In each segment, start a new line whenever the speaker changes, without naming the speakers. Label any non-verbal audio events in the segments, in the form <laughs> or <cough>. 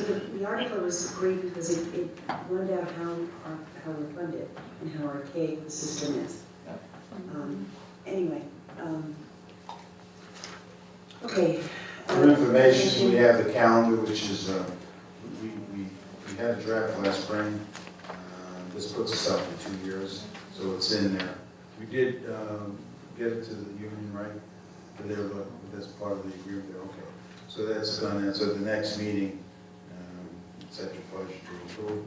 the article was great because it, it learned out how, our- how we're funded and how archaic the system is.
Yeah.
Um, Anyway, um, okay.
For information, we have the calendar, which is, uh, we, we, we had a draft last spring. Uh, This puts us out for two years, so it's in there. We did um, get it to the union, right? But they're, look- that's part of the agreement, they're okay. So that's done, and so the next meeting, um, it's at your pleasure to approve.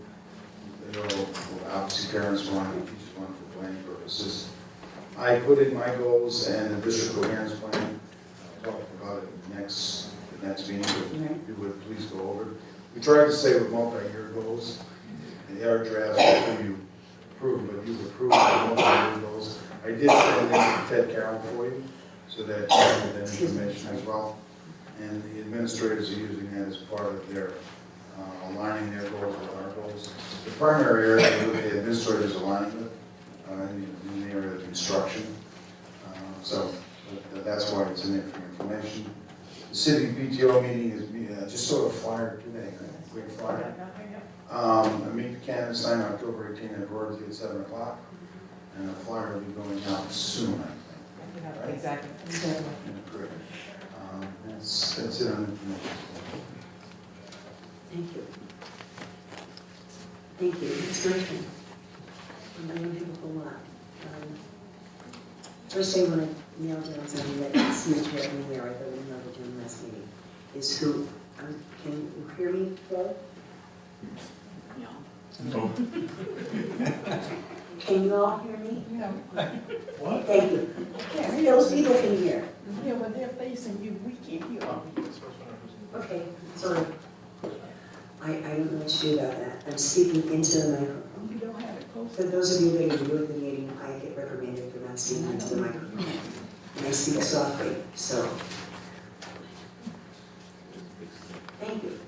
They all, well, obviously parents want, it, teachers want it for planning purposes. I put in my goals and the district coherence plan, I'll talk about it next, the next meeting, but
Right.
if you would please go over. it. We tried to say with multi-year goals, they are drafts after you approve, but you've approved the multi-year goals. I did send this to Ted Carroll for you, so that you have that information as well. And the administrators are using that as part of their, uh, aligning their goals with our goals. The primary area that the administrators aligning with, uh, in the- in the area of instruction. Uh, So uh, that's why it's in there for information. The city PTO meeting is, uh, just sort of flyer today, a quick flyer. Um, I meet the Canvas sign October 18th at Rotary at 7 o'clock. And the flyer will be going out soon, I think.
Exactly.
Great. Um, That's, that's it on information.
Thank you. Thank you, it's my turn. And I don't have a whole lot. Um, First, I want to nail down something that Smith had me aware of, but we know the gym last meeting, is who, um, can you hear me, Flo? Can you all hear me?
Yeah,
What?
Thank you. Yeah, those people can hear.
yeah, when they're facing you, we can't hear them.
Okay, sorry. I, I don't know what to do about that. I'm speaking into the microphone.
You don't have it close.
For those of you that are new at the meeting, I get reprimanded for not speaking into the microphone. And I speak softly, so. Thank you.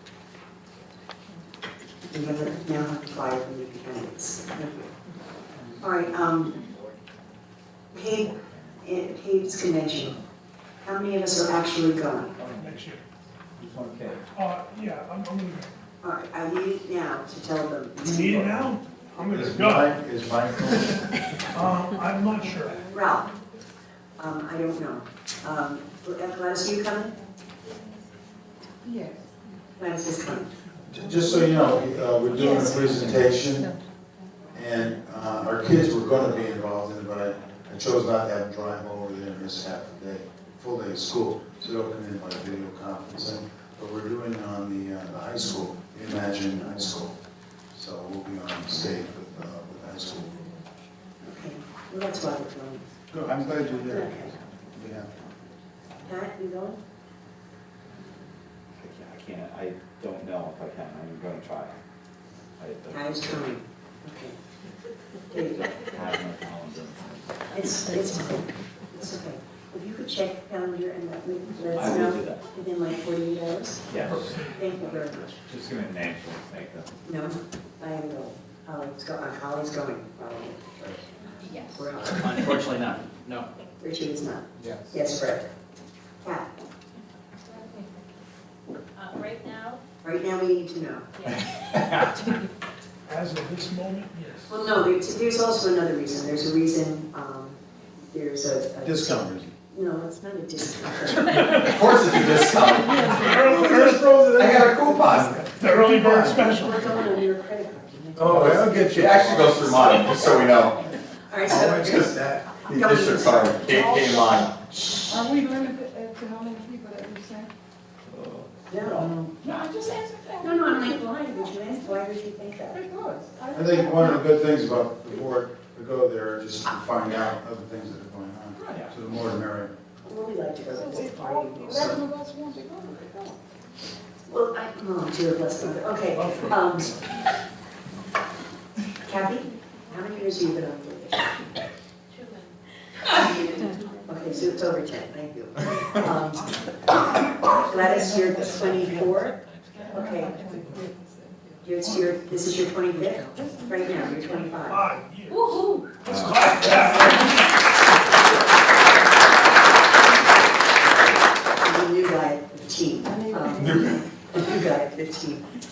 We have a, now have to fly from the candidates. Thank you. All right, um, Cape, eh, Cape's convention. How many of us are actually going?
next year.
Okay.
Uh, yeah, I'm, I'm gonna,
All right, I need it now to tell them.
you need it now? I'm gonna
Is
go.
Mike, is Mike going?
Um, I'm not sure.
Ralph, um, I don't know. Um, Gladys, are you coming?
Yes.
Gladys is coming.
Just so you know, uh, we're doing a
Yes.
presentation, and uh, our kids were gonna be involved in it, but I- I chose not to have them drive over there and miss half the day, full day of school, so they'll come in by video conferencing. But we're doing on the uh, the high school, Imagine High School, so we'll be on stage with, uh, with high school.
Okay, well, that's why we're going.
Good, I'm glad you're
there.
Yeah.
Pat, you going?
I can't- I can't, I don't know if I can, I'm gonna try. I don't-
I was coming. Okay. There you go.
have my calendar.
It's, it's, okay. it's okay. If you could check the calendar and let me, let
I
us
will do
know
that,
within like forty-eight hours,
yes.
thank you very much.
Just gonna name some, thank them.
No, I am going. Holly's go, uh, Holly's going, probably.
Yes.
We're all-
Unfortunately not, no.
Richard is not. Yes. Yes, Fred. Pat,
Uh, Right now,
right now we need to know.
yes.
As of this moment, yes.
Well, no, there's, there's also another reason. There's a reason, um, there's a. a-
Discount, Rizzy.
No, it's not a discount.
Of course it's a discount.
The early bird-
I got a coupon.
the early bird special.
We're going on your credit card.
Oh, I'll get
It actually goes through mine, just so we know.
All right,
Oh, it's
so,
just that.
The district card came, came on.
Are we limited as to how many people that we send?
uh,
no,
No, I just answered that.
no, no, I'm like, why would you ask? Why would you think that?
Because.
I think one of the good things about the board, to go there just to find out other things that are going on. So the more the merrier.
Well, we like to go
So
to this
if all
party.
eleven of us want to go, they go.
Well, I, oh, dear, bless mother, okay, um. Kathy, how many years have you been on probation?
Two minutes.
<laughs> Okay, so it's over ten, thank you. Um, Gladys, you're twenty-four, Okay. you're, you're, this is your twenty-fifth, right now, you're twenty-five.
Five years.
Woo-hoo.
Let's clap that.
And the new guy at fifteen. Um, the New guy at fifteen.